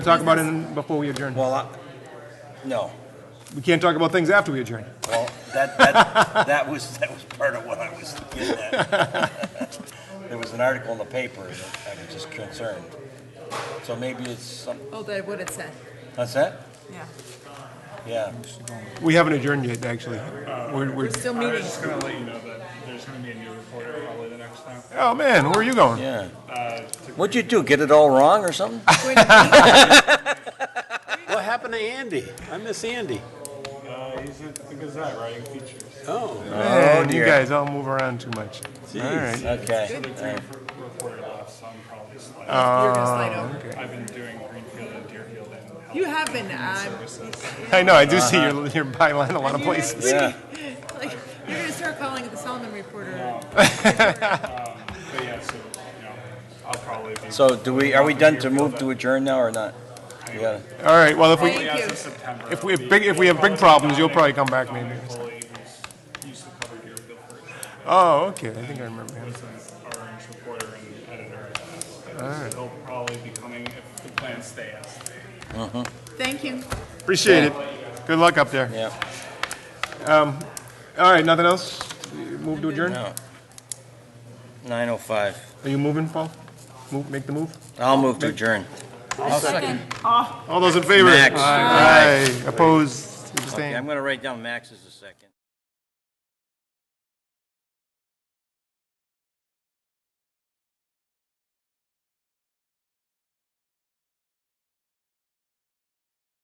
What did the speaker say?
Talk about it before we adjourn. Well, I- no, We can't talk about things after we adjourn. well, that, that, that was, that was part of what I was getting at. There was an article in the paper that I was just concerned. So maybe it's some, Oh, that would have said, that's that? yeah. Yeah. We haven't adjourned yet, actually. We're, we're, We're still I was meeting. just gonna let you know that there's gonna be a new reporter probably the next time. oh man, where are you going? Yeah. Uh, to- What'd you do, get it all wrong or something? What happened to Andy? I miss Andy. uh, he's at the Gazette writing features. Oh, Man, you dear. guys all move around too much. All right. Okay. The green f- reporter left, so I'm probably sliding. You're just like, oh. I've been doing Greenfield and Deerfield and health You have been, uh, services. I know. I do see your your byline in a lot of places. Yeah. like, you're gonna start calling it the Solomon Reporter. um, But yeah, so, you know, I'll probably be. So do we, are we done to move to adjourn now or not? We gotta- All right. Well, if we Thank As of you. September. if we it'll have be- big if we have big Dominic- problems, you'll probably come back maybe. Dominic Foley, who's used to cover Deerfield for us, Oh, okay. I think I remember him. is an orange reporter and editor. at that. So He'll probably be coming if the plans stay as they. Thank you. Appreciate it. Good luck up there. Yeah. All right. Nothing else. Move to adjourn. No. Nine oh five. Are you moving, Paul? Move. Make the move. I'll move to adjourn. All those in favor? Max. Aye. Opposed. Okay, Abstained. I'm gonna write down Max as a second.